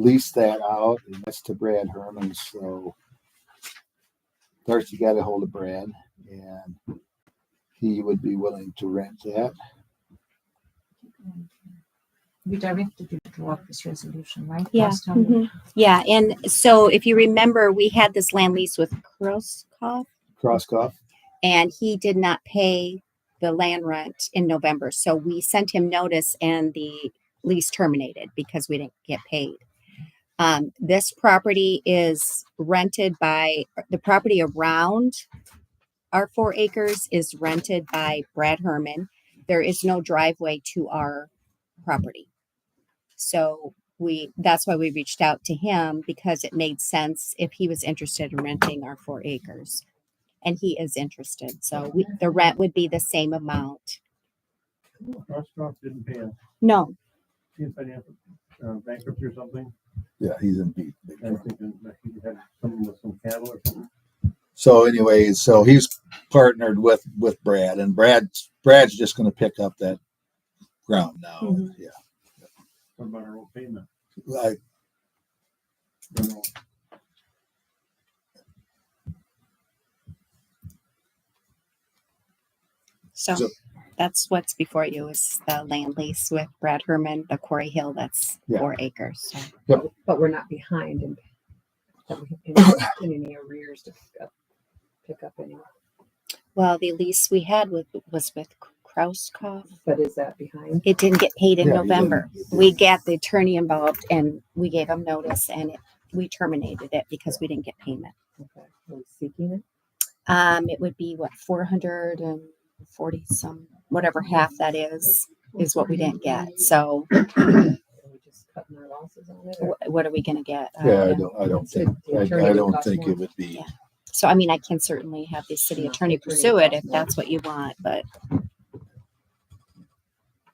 leased that out, and that's to Brad Herman. So Darcy got a hold of Brad, and he would be willing to rent that. We directed you to walk this resolution, right? Yeah, last time? mhm. Yeah, and so if you remember, we had this land lease with Kroskoff Crosskoff, and he did not pay the land rent in November. So we sent him notice and the lease terminated because we didn't get paid. Um, this property is rented by the property around our four acres is rented by Brad Herman. There is no driveway to our property. So we that's why we reached out to him because it made sense if he was interested in renting our four acres and he is interested. So we, the rent would be the same amount. Roscoff didn't pay a, No, he had financial uh, bankruptcy or something, yeah, he's in deep. big and trouble. I think that he had something with some cattle or something. So anyways, so he's partnered with with Brad, and Brad's Brad's just going to pick up that ground now. Mhm. Yeah, What about our own payment? I, You know, so So- that's what's before you is the land lease with Brad Herman, the Quarry Hill, that's Yeah. four acres. So But we're not behind in, that we have any, in any arrears to pick up, pick up any. Well, the lease we had with, was with Krauskopf. But is that behind? It didn't get paid in Yeah, he November. didn't- he We didn't. got the attorney involved and we gave him notice and it, we terminated it because we didn't get payment. Okay, Are we seeking it? Um, it would be what, four hundred and forty some, whatever half that is, is what we didn't get. So Are we just cutting our losses on it? or- wh- what are we gonna get? Uh, Um, yeah, I don't, I don't It's the- think, the I, attorney I would don't cost think more. it would be. Yeah. So I mean, I can certainly have the city Yeah, attorney it's really pursue it if possible. that's what you want, but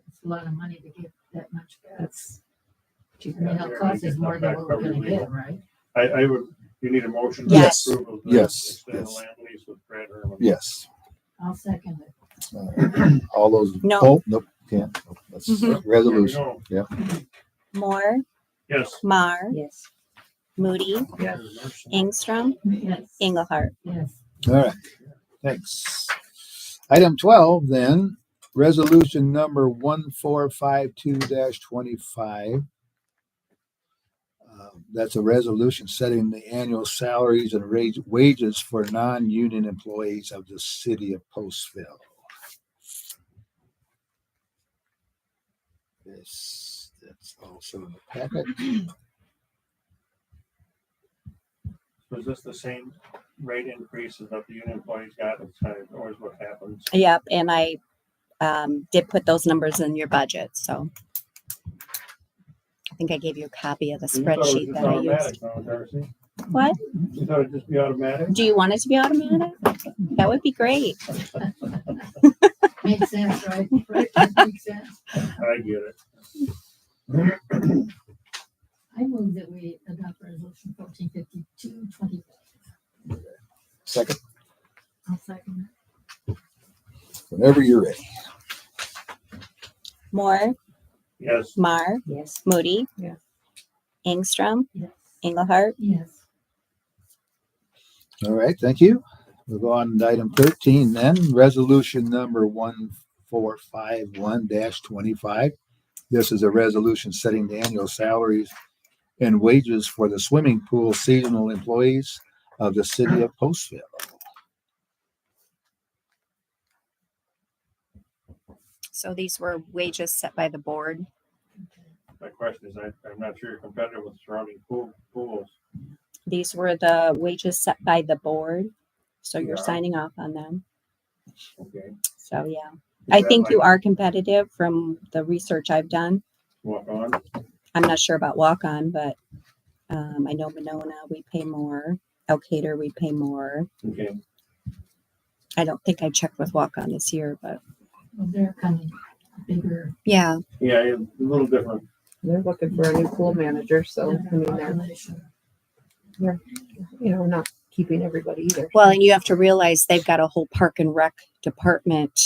It's a lot of money to get that much. That's, I mean, it'll cost us more than what we're gonna get, right? I, I would, you need a motion. Yes. to approve of the Yes, extended yes. Land lease with Brad Herman. Yes, I'll second it. Uh, all those. No. Oh, nope, can't. Nope, That's Mhm. There we resolution. go. Moore, Yes. Mar, yes. Moody, Yes. Ingstrom, Yes. Engelhardt. Yes. All right, thanks. Item twelve then, resolution number one four five two twenty-five. Uh, That's a resolution setting the annual salaries and rage, wages for non-union employees of the city of Postville. This, that's also in the packet. Was this the same rate increase as that the union employees got, It's kind of always what happens? Yep, and I um, did put those numbers in your budget, so. I think I gave you a copy of the You thought it was spreadsheet just that I used. automatic, huh, Darcy? What? You thought it'd just be automatic? Do you want it to be automatic? That would be great. Makes sense, right? Right, that Makes sense. I get it. I move that we adopt resolution fourteen fifty-two twenty. Second, I'll second whenever you're ready. Moore, Yes. Mar, Yes. Moody. Yeah. Ingstrom, it. Yes. Engelhardt. Yes. All right, thank you. We'll go on to item thirteen then, resolution number one four five one twenty-five. This is a resolution setting the annual salaries and wages for the swimming pool seasonal employees of the city of Postville. So these were wages set by the board. My question is, I, I'm not sure you're competitive with surrounding pool, pools. These were the wages set by the board. So you're Yeah. signing off on them. Okay. So, yeah. Is I that think you like are competitive from the research I've done. Walk on, I'm not sure about walk on, but um, I know Monona, we pay more. Elkader, we pay more. okay, I don't think I checked with walk on this year, but Well, they're kind of bigger. yeah. yeah, it's a little different, They're looking for a new pool manager, so, I mean, they're, population. you know, we're not keeping everybody either. Well, and you have to realize they've got a whole park and rec department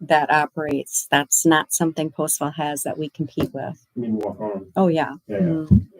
that operates. That's not something Postville has that we compete with. I mean, walk on, Oh, yeah. yeah, yeah. Mhm.